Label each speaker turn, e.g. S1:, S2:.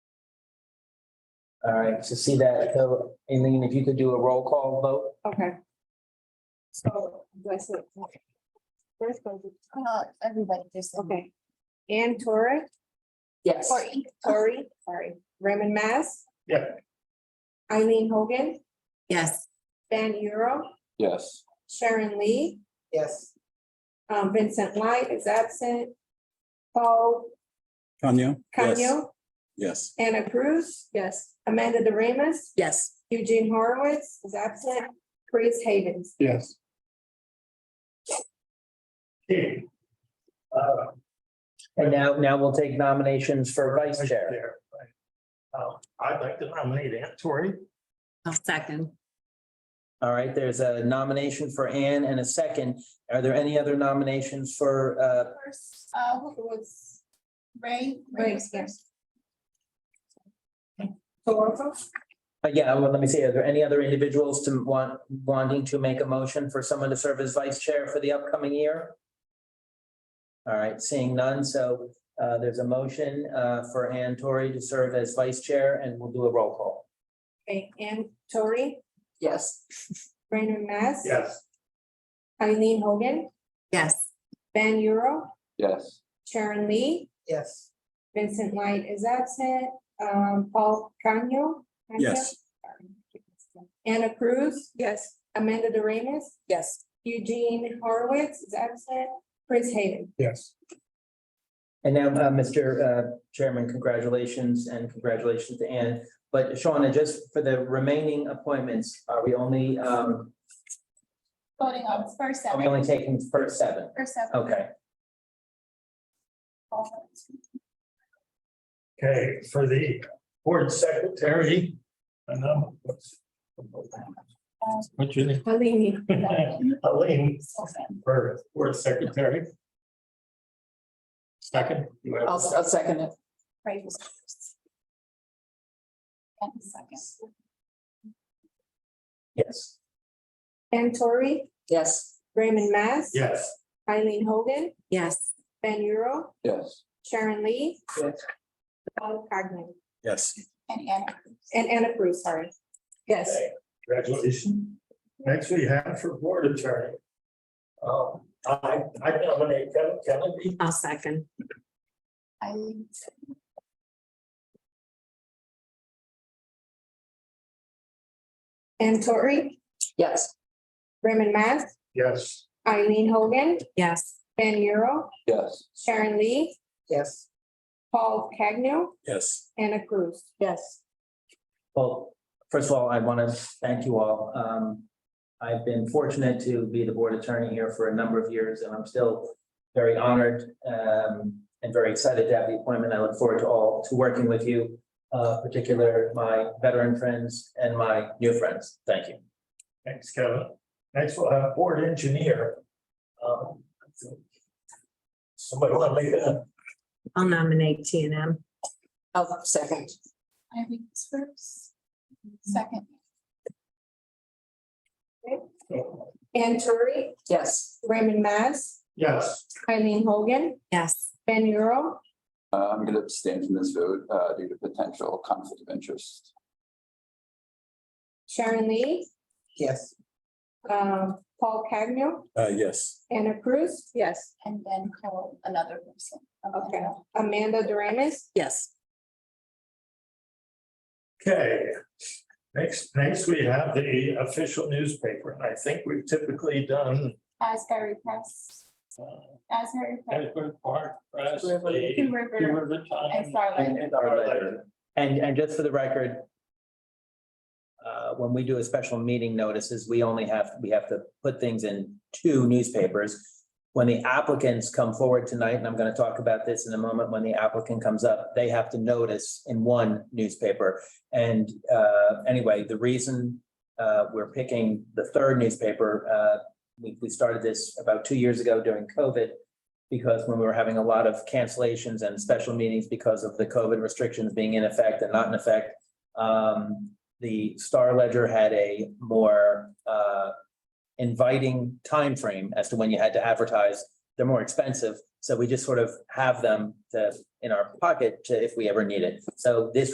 S1: All right, so see that, so, Aileen, if you could do a roll call vote?
S2: Okay. So, do I say? First, go to-
S3: Well, everybody just.
S2: okay. Ann Torre,
S3: Yes.
S2: Sorry. Tori, sorry, Raymond Mass.
S4: Yeah.
S2: Eileen Hogan,
S3: Yes.
S2: Ben Euro,
S4: Yes.
S2: Sharon Lee,
S1: Yes.
S2: um, Vincent Light is absent. Paul
S5: Kanya?
S2: Canio,
S5: Yes.
S2: Anna Cruz. Yes. Amanda De Remus,
S3: Yes.
S2: Eugene Horowitz is absent, Chris Havens.
S4: Yes. Okay. Uh,
S1: And now, now we'll take nominations for vice
S4: Vice
S1: chair.
S4: Chair, right. Uh, I'd like to nominate Ann Torrey.
S3: I'll second.
S1: All right, there's a nomination for Ann and a second. Are there any other nominations for, uh,
S3: First, uh, who was Ray?
S2: Ray,
S3: was
S2: yes.
S3: first.
S2: Toronto.
S1: uh, yeah, well, let me see, are there any other individuals to want, wanting to make a motion for someone to serve as vice chair for the upcoming year? All right, seeing none, so, uh, there's a motion, uh, for Ann Torrey to serve as vice chair and we'll do a roll call.
S2: Okay, Ann Torre,
S1: Yes.
S2: Raymond Mass.
S4: Yes.
S2: Eileen Hogan,
S3: Yes.
S2: Ben Euro,
S4: Yes.
S2: Sharon Lee,
S1: Yes.
S2: Vincent Light is absent, um, Paul Canio.
S5: Yes.
S2: Anna Cruz. Yes. Amanda De Remus,
S3: Yes.
S2: Eugene Horowitz is absent, Chris Hayden.
S4: Yes.
S1: And now, uh, Mr. uh, Chairman, congratulations and congratulations to Ann. But Shauna, just for the remaining appointments, are we only, um,
S3: Voting on first
S1: are we
S3: seven,
S1: only taking first seven?
S3: first seven.
S1: Okay,
S4: Okay, for the board secretary. and, um, What's your name?
S2: Halini.
S4: Elaine
S3: Seven.
S4: for board secretary. Second. you have a second?
S1: second it.
S3: Ray was first. And second.
S1: Yes.
S2: Ann Torrey,
S1: Yes.
S2: Raymond Mass.
S4: Yes.
S2: Eileen Hogan,
S3: Yes.
S2: Ben Euro,
S4: Yes.
S2: Sharon Lee,
S1: Yes.
S2: Paul Cogman,
S5: Yes.
S3: And Anna.
S2: and Anna Cruz, sorry. Yes.
S4: Congratulations. Next we have for board attorney. Um, I, I nominate Kevin Kennedy.
S3: I'll second. Eileen.
S2: Ann Torrey,
S1: Yes.
S2: Raymond Mass,
S4: Yes.
S2: Eileen Hogan,
S3: Yes.
S2: Ben Euro,
S4: Yes.
S2: Sharon Lee,
S1: Yes.
S2: Paul Cagnon,
S5: Yes.
S2: Anna Cruz.
S1: Yes. Well, first of all, I want to thank you all. Um, I've been fortunate to be the board attorney here for a number of years, and I'm still very honored um, and very excited to have the appointment. I look forward to all, to working with you, uh, particular my veteran friends and my new friends. Thank you.
S4: Thanks, Kevin. Next we'll have board engineer. Um, Somebody want to lead that?
S6: I'll nominate T and M.
S3: Eileen was first. Second.
S2: Ann Torrey. Yes. Raymond Mass,
S4: Yes.
S2: Eileen Hogan,
S6: Yes,
S2: Ben Euro,
S7: Uh, I'm going to abstain from this vote uh, due to potential conflict of interest.
S2: Sharon Lee,
S1: Yes.
S2: um, Paul Cagnon,
S5: Uh, yes.
S2: Anna Cruz. Yes.
S3: And then call another person.
S2: Okay. Amanda Doremus,
S6: yes,
S4: Okay. Next, next we have the official newspaper. And I think we've typically done
S3: Asbury Press,
S4: uh,
S3: Asbury Press,
S4: Edward Park, Press,
S1: River.
S4: the
S3: Two River,
S4: Two River Times,
S3: and Starlight.
S4: and Our Letter.
S1: And, and just for the record, uh, when we do a special meeting notices, we only have, we have to put things in two newspapers. When the applicants come forward tonight, and I'm going to talk about this in a moment, when the applicant comes up, they have to notice in one newspaper. And uh, anyway, the reason uh, we're picking the third newspaper, uh, we, we started this about two years ago during COVID because when we were having a lot of cancellations and special meetings because of the COVID restrictions being in effect and not in effect, um, the Star Ledger had a more, uh, inviting timeframe as to when you had to advertise. They're more expensive, so we just sort of have them to, in our pocket to, if we ever need it. So this